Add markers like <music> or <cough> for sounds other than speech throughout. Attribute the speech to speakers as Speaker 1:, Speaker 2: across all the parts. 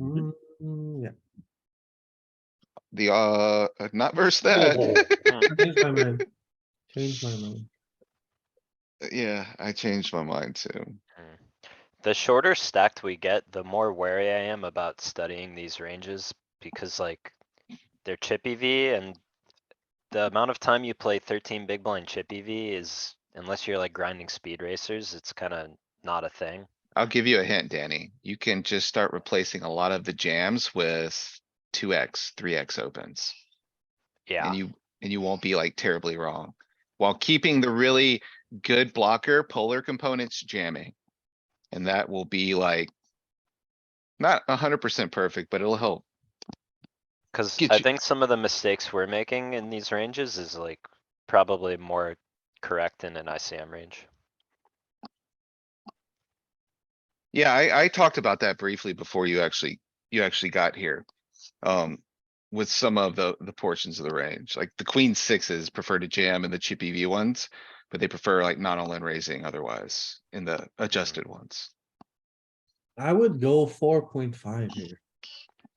Speaker 1: Mm, yeah.
Speaker 2: The, uh, not versus <laughs>
Speaker 1: Oh.
Speaker 3: <laughs>
Speaker 2: that.
Speaker 1: <laughs> Change my mind. Change my mind.
Speaker 2: Yeah, I changed my mind too.
Speaker 3: Mm. The shorter stacked we get, the more wary I am about studying these ranges, because like, they're chippy V and. The amount of time you play thirteen big blind chippy V is, unless you're like grinding speed racers, it's kinda not a thing.
Speaker 2: I'll give you a hint, Danny. You can just start replacing a lot of the jams with two X, three X opens.
Speaker 3: Yeah,
Speaker 2: And you, and you won't be like terribly wrong. While keeping the really good blocker polar components jamming. And that will be like. Not hundred percent perfect, but it'll help.
Speaker 3: cuz
Speaker 2: get
Speaker 3: I
Speaker 2: you-
Speaker 3: think some of the mistakes we're making in these ranges is like probably more correct in an ICM range.
Speaker 2: Yeah, I, I talked about that briefly before you actually, you actually got here. Um, with some of the, the portions of the range, like the queen sixes prefer to jam in the chippy V ones. But they prefer like not all in raising otherwise in the
Speaker 3: Mm-hmm.
Speaker 2: adjusted ones.
Speaker 1: I would go four point five here.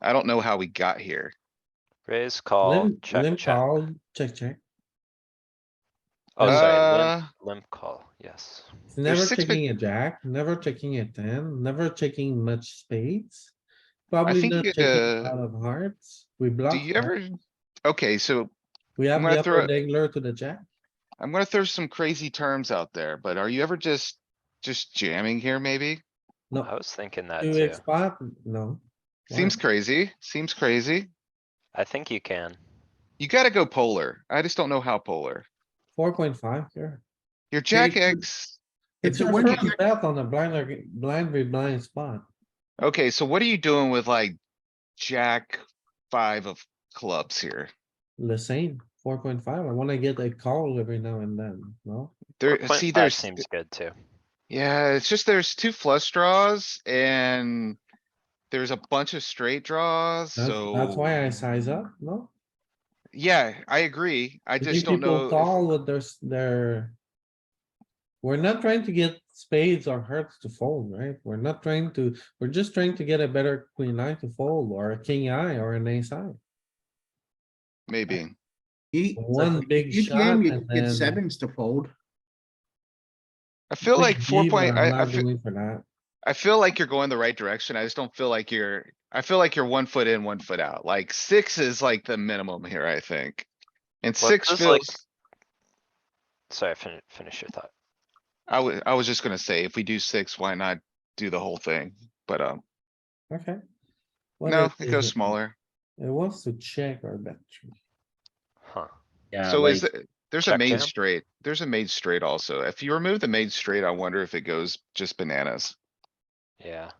Speaker 2: I don't know how we got here.
Speaker 3: Raise,
Speaker 2: Oh,
Speaker 3: call,
Speaker 1: Limp,
Speaker 3: check,
Speaker 1: limp
Speaker 3: check.
Speaker 1: call, check, check.
Speaker 3: Oh, sorry, limp,
Speaker 2: Uh,
Speaker 3: limp call, yes.
Speaker 1: It's Never
Speaker 2: six big-
Speaker 1: checking a jack, never checking a ten, never checking much spades. Probably
Speaker 2: think,
Speaker 1: not checking a
Speaker 2: uh,
Speaker 1: lot of hearts. We block.
Speaker 2: do you
Speaker 1: hearts.
Speaker 2: ever? Okay, so
Speaker 1: We have
Speaker 2: gonna
Speaker 1: the
Speaker 2: throw
Speaker 1: upper
Speaker 2: it-
Speaker 1: dangler to the jack.
Speaker 2: I'm gonna throw some crazy terms out there, but are you ever just, just jamming here maybe?
Speaker 3: I
Speaker 1: No,
Speaker 3: was thinking that
Speaker 1: two
Speaker 3: too.
Speaker 1: X spot, no. Why?
Speaker 2: Seems crazy, seems crazy.
Speaker 3: I think you can.
Speaker 2: You gotta go polar. I just don't know how polar.
Speaker 1: Four point five here.
Speaker 2: Your jack
Speaker 1: you-
Speaker 2: X. If
Speaker 1: It's
Speaker 2: you
Speaker 1: your
Speaker 2: win, you
Speaker 1: first bet on the blind, or- blind with blind spot.
Speaker 2: Okay, so what are you doing with like jack five of clubs here?
Speaker 1: The same, four point five. I wanna get a call every now and then, no?
Speaker 2: There,
Speaker 3: Point
Speaker 2: see,
Speaker 3: five
Speaker 2: there's,
Speaker 3: Seems good too.
Speaker 2: yeah, it's just there's two flush draws and there's a bunch of straight draws,
Speaker 1: That's,
Speaker 2: so.
Speaker 1: that's why I size up, no?
Speaker 2: Yeah, I agree. I
Speaker 1: You think
Speaker 2: just don't
Speaker 1: people
Speaker 2: know. if-
Speaker 1: Call with their, s- their. We're not trying to get spades or hearts to fold, right? We're not trying to, we're just trying to get a better queen eye to fold or a king eye or an ace eye.
Speaker 2: Maybe.
Speaker 4: You,
Speaker 1: One big
Speaker 4: you
Speaker 1: shot
Speaker 4: jam, you
Speaker 1: and
Speaker 4: get
Speaker 1: then.
Speaker 4: sevens to fold.
Speaker 2: I feel like
Speaker 1: Big
Speaker 2: four
Speaker 1: V, but
Speaker 2: point,
Speaker 1: I'm
Speaker 2: I, I
Speaker 1: not
Speaker 2: feel,
Speaker 1: doing For that.
Speaker 2: I feel like you're going the right direction. I just don't feel like you're, I feel like you're one foot in, one foot out. Like six is like the minimum here, I think. And
Speaker 3: Well,
Speaker 2: six
Speaker 3: just like-
Speaker 2: feels.
Speaker 3: Sorry, fin- finish your thought.
Speaker 2: I was, I was just gonna say, if we do six, why not do the whole thing? But, um,
Speaker 1: Okay. What
Speaker 2: no,
Speaker 1: else
Speaker 2: it
Speaker 1: is
Speaker 2: goes smaller.
Speaker 1: It wants to check our bet. tree.
Speaker 3: Huh.
Speaker 5: Yeah,
Speaker 2: So is,
Speaker 5: like,
Speaker 2: the- there's a
Speaker 3: check
Speaker 2: made
Speaker 3: jam?
Speaker 2: straight, there's a made straight also. If you remove the made straight, I wonder if it goes just bananas.
Speaker 3: Yeah.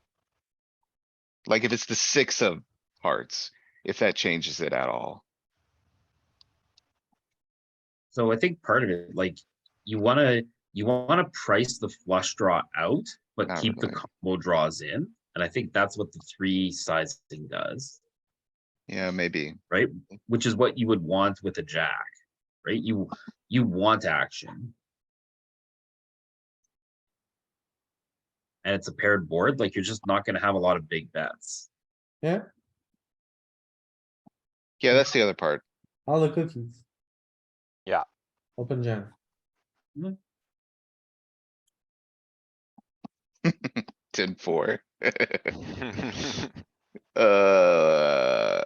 Speaker 2: Like if it's the six of hearts, if that changes it at all.
Speaker 5: so I think part of it, like, you wanna, you wanna price the flush draw out, but
Speaker 2: Not
Speaker 5: keep the
Speaker 2: really.
Speaker 5: combo draws in. And I think that's what the three sizing does,
Speaker 2: Yeah, maybe.
Speaker 5: which is what you would want with a jack, right? You, you want action. And it's a paired board, like, you're just not gonna have a lot of big bets.
Speaker 2: Yeah, that's the other part.
Speaker 1: All the cookies.
Speaker 3: Yeah.
Speaker 1: Open jam.
Speaker 2: Ten four. Uh,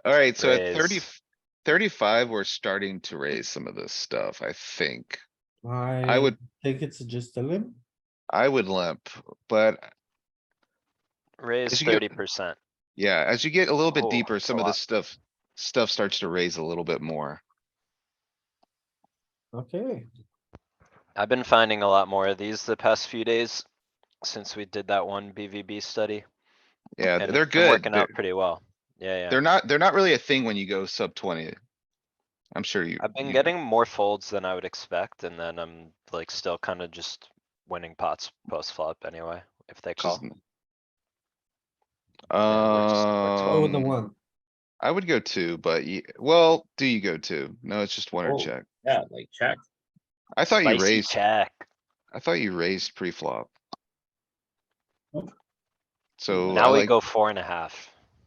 Speaker 2: alright, so at 30
Speaker 3: Raise.
Speaker 2: 35, we we're starting to raise some of this stuff, I think. I
Speaker 3: Mm.
Speaker 1: I
Speaker 2: would,
Speaker 1: think it's just a limp.
Speaker 2: I would limp, but
Speaker 3: <laughs> Raise
Speaker 2: As you get-
Speaker 3: thirty percent.
Speaker 2: Yeah, as you get a little bit
Speaker 3: Oh,
Speaker 2: deeper,
Speaker 3: that's a
Speaker 2: some of
Speaker 3: lot.
Speaker 2: this stuff, stuff starts to raise a little bit more.
Speaker 1: Okay,
Speaker 3: I've been finding a lot more of these the past few days since we did that one BVB study.
Speaker 2: Yeah,
Speaker 3: and
Speaker 2: they're
Speaker 3: it's been
Speaker 2: good.
Speaker 3: Working out
Speaker 2: They're,
Speaker 3: pretty well. Yeah, yeah.
Speaker 2: they're not, they're not really a thing when you go sub twenty. I'm sure you.
Speaker 3: I've been
Speaker 2: you-
Speaker 3: getting more folds than I would expect and then I'm like still kinda just winning pots post flop anyway, if they call.
Speaker 2: just-
Speaker 3: we're just- we're
Speaker 1: go with Oh, the
Speaker 2: Um,
Speaker 1: one.
Speaker 2: I would go two, but you, well, do you go two? No, it's just one or
Speaker 5: Oh.
Speaker 2: check.
Speaker 5: Yeah, like, check.
Speaker 2: I thought you
Speaker 3: Spicy
Speaker 2: raised,
Speaker 3: check.
Speaker 2: I thought you raised pre-flop.
Speaker 5: Nope.
Speaker 2: So I
Speaker 3: Now we
Speaker 2: like,
Speaker 3: go four and a half.